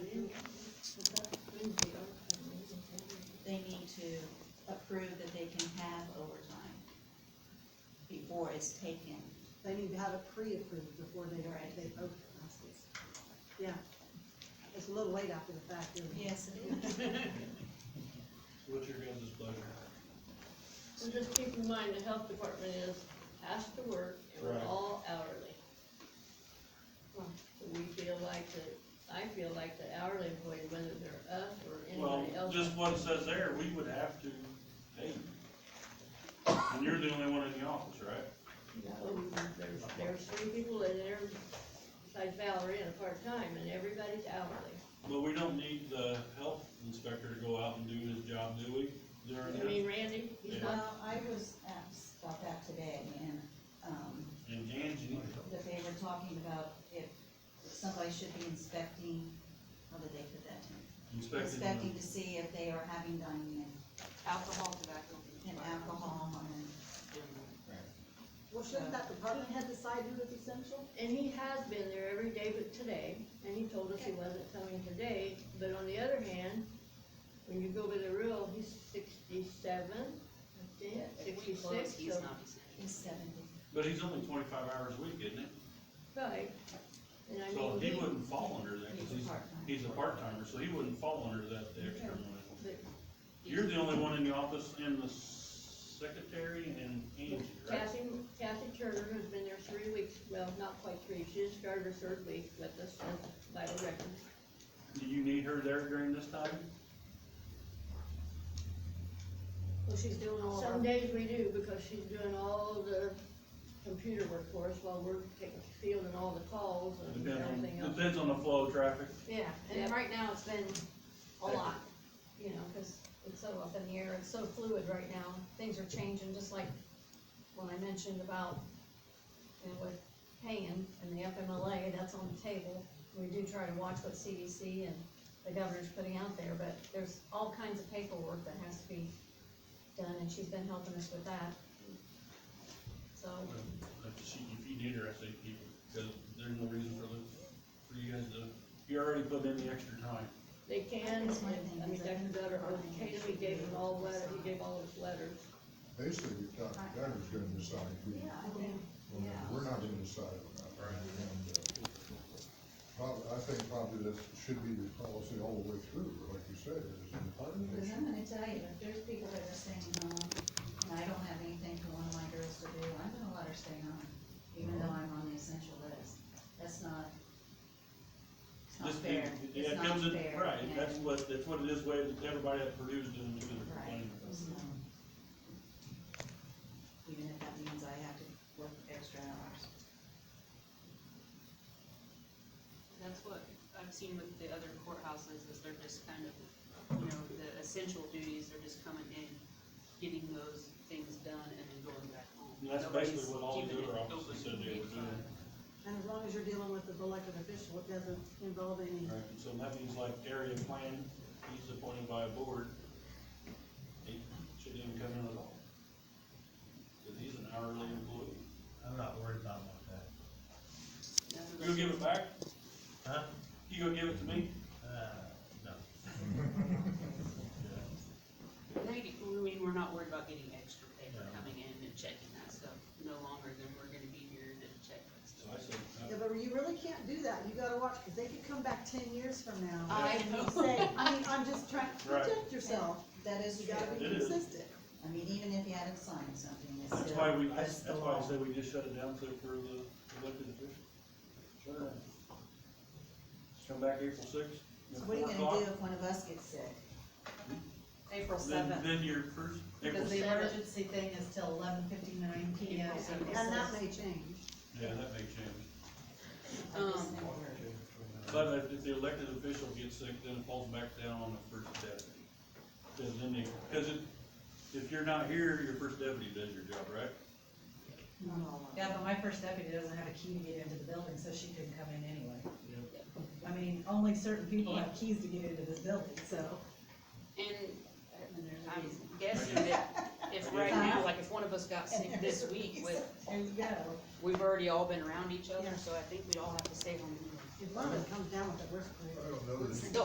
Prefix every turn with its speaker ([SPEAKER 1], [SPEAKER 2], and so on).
[SPEAKER 1] before it's taken.
[SPEAKER 2] They need to have it pre-approved before they,
[SPEAKER 1] Right.
[SPEAKER 2] they open houses. Yeah, it's a little late after the fact, isn't it?
[SPEAKER 1] Yes, it is.
[SPEAKER 3] What's your guys' pleasure?
[SPEAKER 4] So just keep in mind, the health department is after work, and we're
[SPEAKER 3] Right.
[SPEAKER 4] all hourly. So we feel like the, I feel like the hourly employee, whether they're us or
[SPEAKER 3] Well,
[SPEAKER 4] anybody else.
[SPEAKER 3] just what it says there, we would have to pay you. And you're the only one in the office, right?
[SPEAKER 4] No, There's, there's three people in there, besides Valerie, and a part-time, and everybody's hourly.
[SPEAKER 3] But we don't need the health inspector to go out and do his job, do we? During
[SPEAKER 4] I
[SPEAKER 3] the,
[SPEAKER 4] mean, Randy, he's
[SPEAKER 3] Yeah.
[SPEAKER 4] not,
[SPEAKER 1] Well, I was asked about that today, and, um,
[SPEAKER 3] and Angie,
[SPEAKER 1] that they were talking about if somebody should be inspecting, how did they put that?
[SPEAKER 3] inspecting
[SPEAKER 1] Inspecting
[SPEAKER 3] the,
[SPEAKER 1] to see if they are having dining
[SPEAKER 5] Alcohol, tobacco.
[SPEAKER 1] and alcohol and.
[SPEAKER 2] Well, shouldn't that department head decide who is essential?
[SPEAKER 4] and he has been there every day but today, and he told us he wasn't coming today, but on the other hand, when you go by the rule, he's sixty-seven, I think,
[SPEAKER 5] If we close,
[SPEAKER 4] sixty-six,
[SPEAKER 5] he's
[SPEAKER 4] so,
[SPEAKER 5] not essential.
[SPEAKER 1] Is seventy.
[SPEAKER 3] but he's only twenty-five hours a week, isn't he?
[SPEAKER 4] right. And I
[SPEAKER 3] So
[SPEAKER 4] mean,
[SPEAKER 3] he
[SPEAKER 4] he,
[SPEAKER 3] wouldn't fall under that, cause
[SPEAKER 1] He's a
[SPEAKER 3] he's,
[SPEAKER 1] part-time.
[SPEAKER 3] he's a part-timer, so he wouldn't fall under that, the extra
[SPEAKER 4] Yeah.
[SPEAKER 3] money.
[SPEAKER 4] but
[SPEAKER 3] You're the only one in the office and the secretary and Angie, right?
[SPEAKER 4] Kathy, Kathy Turner, who's been there three weeks, well, not quite three, she just started her third week with us, as by the record.
[SPEAKER 3] Do you need her there during this time?
[SPEAKER 5] Well, she's doing all
[SPEAKER 4] Some days we do, because she's doing all the computer work for us while we're taking, fielding all the calls and
[SPEAKER 3] Depends on,
[SPEAKER 4] everything else.
[SPEAKER 3] depends on the flow of traffic.
[SPEAKER 5] Yeah,
[SPEAKER 4] Yeah.
[SPEAKER 5] and right now it's been a
[SPEAKER 3] Okay.
[SPEAKER 5] lot, you know, cause it's so up in the air, it's so fluid right now, things are changing, just like when I mentioned about, you know, with paying and the FMLA, that's on the table. We do try to watch what CDC and the governor's putting out there, but there's all kinds of paperwork that has to be done, and she's been helping us with that. So,
[SPEAKER 3] If she- if you need her, I say keep her, because there's no reason for the, for you guys to, you already put in the extra time.
[SPEAKER 4] They can,
[SPEAKER 1] That's my thing,
[SPEAKER 4] I mean,
[SPEAKER 1] is I
[SPEAKER 4] Dr.
[SPEAKER 1] think
[SPEAKER 4] Gutter, or
[SPEAKER 1] Brian
[SPEAKER 4] Tatum, he
[SPEAKER 1] should
[SPEAKER 4] gave
[SPEAKER 1] be
[SPEAKER 4] us all
[SPEAKER 1] able to
[SPEAKER 4] letter, he
[SPEAKER 1] decide.
[SPEAKER 4] gave all us letters.
[SPEAKER 6] Basically, you're talking, governor's gonna decide who,
[SPEAKER 1] Yeah, I think,
[SPEAKER 6] well, we're not gonna decide about that. And, uh, Probably, I think probably that should be the policy all the way through, like you said, is in
[SPEAKER 1] because I'm
[SPEAKER 6] partnership.
[SPEAKER 1] gonna tell you, if there's people that are staying home, and I don't have anything for one of my girls to do, I'm gonna let her stay home, even though I'm on the essential list. That's not, it's not
[SPEAKER 3] This-
[SPEAKER 1] fair.
[SPEAKER 3] yeah,
[SPEAKER 1] It's
[SPEAKER 3] it
[SPEAKER 1] not
[SPEAKER 3] comes in-
[SPEAKER 1] fair,
[SPEAKER 3] Right,
[SPEAKER 1] and-
[SPEAKER 3] that's what, that's what it is, way that everybody at Purdue's doing too, they're
[SPEAKER 1] Right. Mm-hmm.
[SPEAKER 3] complaining.
[SPEAKER 1] So, Even if that means I have to work extra hours.
[SPEAKER 5] That's what I've seen with the other courthouses, is they're just kind of, you know, the essential duties, they're just coming in, getting those things done and then going back home.
[SPEAKER 3] And that's
[SPEAKER 5] Nobody's
[SPEAKER 3] basically what all the
[SPEAKER 5] keeping
[SPEAKER 3] other
[SPEAKER 5] it
[SPEAKER 3] offices
[SPEAKER 5] open
[SPEAKER 3] said they were
[SPEAKER 5] eight to five.
[SPEAKER 3] doing.
[SPEAKER 2] And as long as you're dealing with the elected official, it doesn't involve any,
[SPEAKER 3] Right, and so that means like area plan, he's appointed by a board, he shouldn't even come in at all. Cause he's an hourly employee.
[SPEAKER 7] I'm not worried about like that.
[SPEAKER 5] That's what
[SPEAKER 3] You gonna give
[SPEAKER 5] they-
[SPEAKER 3] it back?
[SPEAKER 7] Huh?
[SPEAKER 3] You gonna give it to me?
[SPEAKER 7] Uh, no.
[SPEAKER 5] Maybe, I mean, we're not worried about getting extra paper
[SPEAKER 7] No.
[SPEAKER 5] coming in and checking that stuff no longer than we're gonna be here to check that
[SPEAKER 3] So
[SPEAKER 5] stuff.
[SPEAKER 3] I said, uh,
[SPEAKER 2] yeah, but you really can't do that, you gotta watch, cause they could come back ten years from now
[SPEAKER 5] I
[SPEAKER 2] and
[SPEAKER 5] know.
[SPEAKER 2] say, I mean, I'm just trying to
[SPEAKER 3] Right.
[SPEAKER 2] protect yourself,
[SPEAKER 1] That is
[SPEAKER 2] you
[SPEAKER 1] true.
[SPEAKER 2] gotta be
[SPEAKER 3] It is.
[SPEAKER 2] consistent.
[SPEAKER 1] I mean, even if you had signed something, it's still.
[SPEAKER 3] That's why we,
[SPEAKER 1] that's
[SPEAKER 3] that's,
[SPEAKER 1] the
[SPEAKER 3] that's why I
[SPEAKER 1] law.
[SPEAKER 3] said we just shut it down to approve the elected official. Shut it down. Come back April sixth.
[SPEAKER 1] So what are you gonna do if one of us gets sick?
[SPEAKER 8] April
[SPEAKER 3] Then,
[SPEAKER 8] seventh,
[SPEAKER 3] then you're first, April,
[SPEAKER 8] because the
[SPEAKER 4] seventh.
[SPEAKER 8] emergency thing is till eleven fifty-nine P M.
[SPEAKER 5] April seventh.
[SPEAKER 2] And that may change.
[SPEAKER 3] yeah, that may change.
[SPEAKER 1] I just
[SPEAKER 5] Um,
[SPEAKER 1] never heard.
[SPEAKER 3] But if, if the elected official gets sick, then it falls back down on the first deputy. Cause then they, cause it, if you're not here, your first deputy does your job, right?
[SPEAKER 1] Not all of
[SPEAKER 8] Yeah,
[SPEAKER 1] them.
[SPEAKER 8] but my first deputy doesn't have a key to get into the building, so she couldn't come in anyway. I mean, only certain people have keys to get into this building, so.
[SPEAKER 5] And
[SPEAKER 1] And there's a
[SPEAKER 5] I'm
[SPEAKER 1] reason.
[SPEAKER 5] guessing that if right now, like if one of us got sick
[SPEAKER 2] And
[SPEAKER 5] this
[SPEAKER 2] there's a
[SPEAKER 5] week,
[SPEAKER 2] reason.
[SPEAKER 5] with,
[SPEAKER 8] There you go.
[SPEAKER 5] we've already all been around each other,
[SPEAKER 2] Yeah.
[SPEAKER 5] so I think we'd all have to stay home.
[SPEAKER 2] If one of them comes down with a worst
[SPEAKER 6] I don't know that.
[SPEAKER 5] The